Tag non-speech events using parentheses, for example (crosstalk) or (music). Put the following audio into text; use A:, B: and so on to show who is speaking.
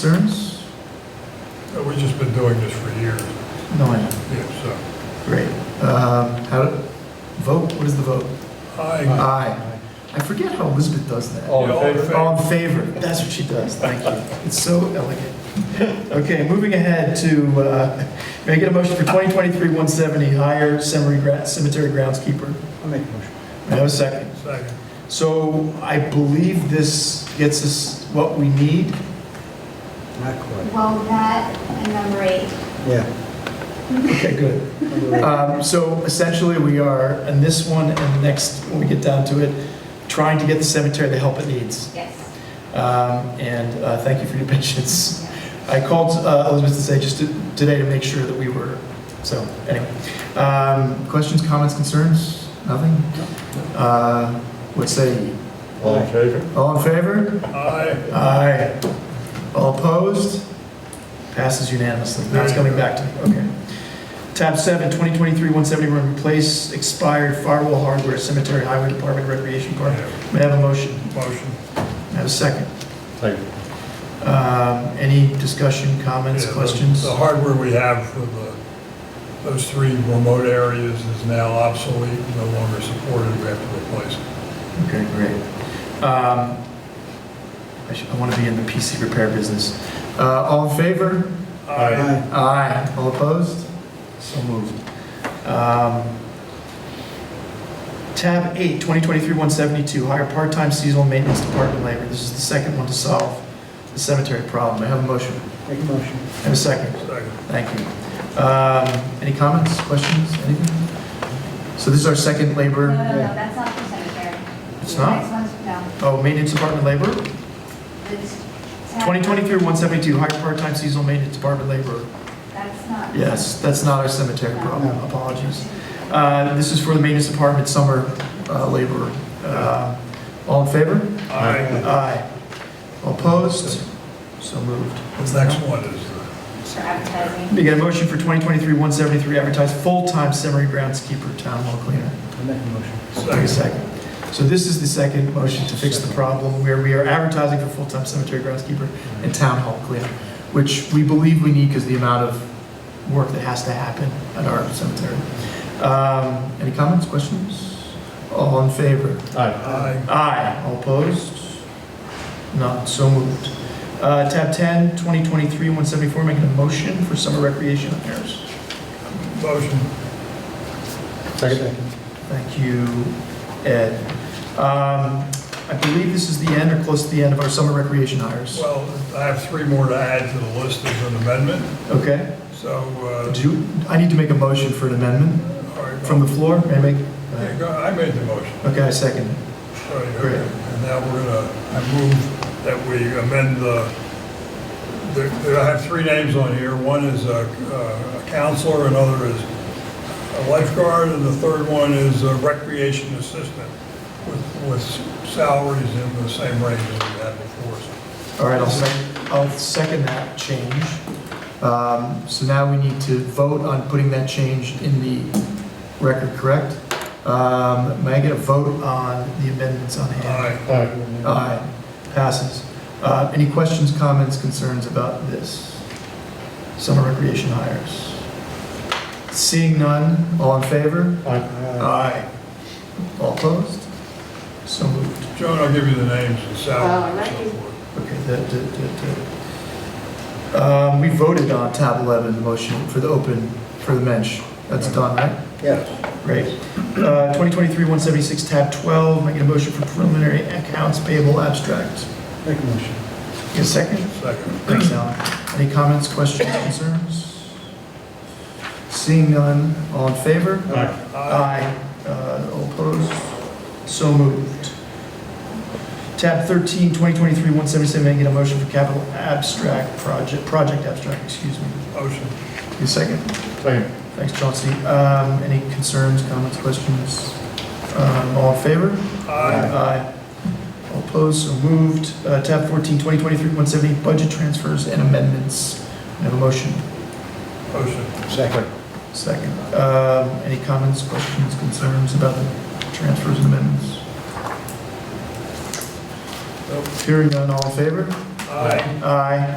A: concerns?
B: Uh, We've just been doing this for years,
A: No, I don't.
B: yeah, so.
A: Great. Um, How, do- vote, what is the vote?
B: I,
A: Aye. I forget how Elizabeth does that.
C: All in
B: Yeah, all in
C: favor?
B: favor.
A: Uh, All in favor? That's what she does, thank you. It's so elegant. Okay, moving ahead to, uh, may I get a motion for 2023-170, hire cemetery gra- cemetery groundskeeper?
C: I'll make a motion.
A: May I have a second?
B: second,
A: So I believe this gets us what we need.
C: Not quite.
D: Well, that and number eight.
C: Yeah.
A: Okay, good. Um, So essentially, we are, in this one and the next, when we get down to it, trying to get the cemetery the help it needs.
D: Yes.
A: Um, And uh, thank you for your (laughs) patience. I called uh, Elizabeth to say just to- today to make sure that we were, so, anyway. Um, Questions, comments, concerns? Nothing? Uh, What say you?
C: All in
E: favor?
A: All in favor?
B: I,
A: Aye. All opposed? Passes unanimously. Now it's coming back to me, okay. Tab 7, 2023-170, we're gonna replace expired firewall hardware, cemetery, highway department, recreation park. May I have a motion?
B: motion,
A: May I have a second?
E: Second.
A: Um, Any discussion, comments,
B: Yeah, the-
A: questions?
B: The hardware we have for the, those three remote areas is now obsolete, no longer supported, we have to replace it.
A: Okay, great. Um, I should- I want to be in the PC repair business. Uh, All in favor?
B: I,
A: Aye. All opposed? So moved. Um, Tab 8, 2023-172, hire part-time seasonal maintenance department labor. This is the second one to solve the cemetery problem. I have a motion.
C: Make a motion.
A: I have a second.
B: second,
A: Thank you. Um, Any comments, questions, anything? So this is our second
D: No, no,
A: labor,
D: no, that's not for cemetery.
A: It's
D: The
A: not?
D: Next one's, no.
A: oh, maintenance department labor?
D: It's-
A: 2023-172, hire part-time seasonal maintenance department labor.
D: That's not.
A: Yes, that's not our cemetery problem.
C: No.
A: Apologies. Uh, This is for the maintenance department, summer uh, labor. Uh, All in favor?
B: I,
A: Aye. All Opposed? So moved.
B: the next one is the
D: For advertising.
A: We get a motion for 2023-173, advertise full-time cemetery groundskeeper, town hall cleaner.
C: I'll make a motion.
A: Take a
B: second,
A: second. So this is the second motion to fix the problem, where we are advertising for full-time cemetery groundskeeper and town hall cleaner, which we believe we need because the amount of work that has to happen at our cemetery. Um, Any comments, questions? All in favor?
E: Aye.
B: I,
A: Aye. All opposed? None, so moved. Uh, Tab 10, 2023-174, making a motion for summer recreation affairs.
B: motion,
E: Second.
A: Thank you, Ed. Um, I believe this is the end or close to the end of our summer recreation hires.
B: well, I have three more to add to the list as an amendment,
A: Okay?
B: so, uh,
A: Do you, I need to make a motion for an amendment
B: all right,
A: from the floor? May I make?
B: Yeah, go- I made the motion.
A: Okay, I second. it.
B: All right,
A: Great.
B: okay. And now we're gonna, I move that we amend the, there- there- I have three names on here. One is a uh, a counselor, another is a lifeguard, and the third one is a recreation assistant with, with salaries in the same range as we had before.
A: All right, I'll second, I'll second that change. Um, So now we need to vote on putting that change in the record, correct? Um, May I get a vote on the amendments on hand?
B: Aye.
E: Aye.
A: Aye. Passes. Uh, Any questions, comments, concerns about this? Summer recreation hires. Seeing none, all in favor?
E: Aye.
A: Aye. All opposed? So moved.
B: Joan, I'll give you the names and
D: Oh,
B: salaries
D: I
B: and
D: like
B: so forth.
A: Okay, that, that, that, that. Um, we voted on tab 11, the motion for the open, for the mensch. That's done, right?
C: Yeah.
A: Great. Uh, 2023-176, tab 12, making a motion for preliminary accounts payable abstract.
C: Make a motion.
A: Get a second?
B: Second.
A: Thanks, Alan. Any comments, questions, concerns? Seeing none, all in favor?
E: Aye.
B: Aye.
A: Aye. Uh, All opposed? So moved. Tab 13, 2023-177, may I get a motion for capital abstract project, project abstract, excuse me.
B: Motion.
A: Give me a second.
E: Second.
A: Thanks, Chauncey. Um, Any concerns, comments, questions? Um, All in favor?
B: Aye.
A: Aye. All opposed? So moved. Uh, Tab 14, 2023-178, budget transfers and amendments. May I Have a motion.
B: Motion.
C: Second.
A: Second. Um, Any comments, questions, concerns about the transfers and amendments? Nope. Hearing none, all in favor?
B: Aye.
A: Aye.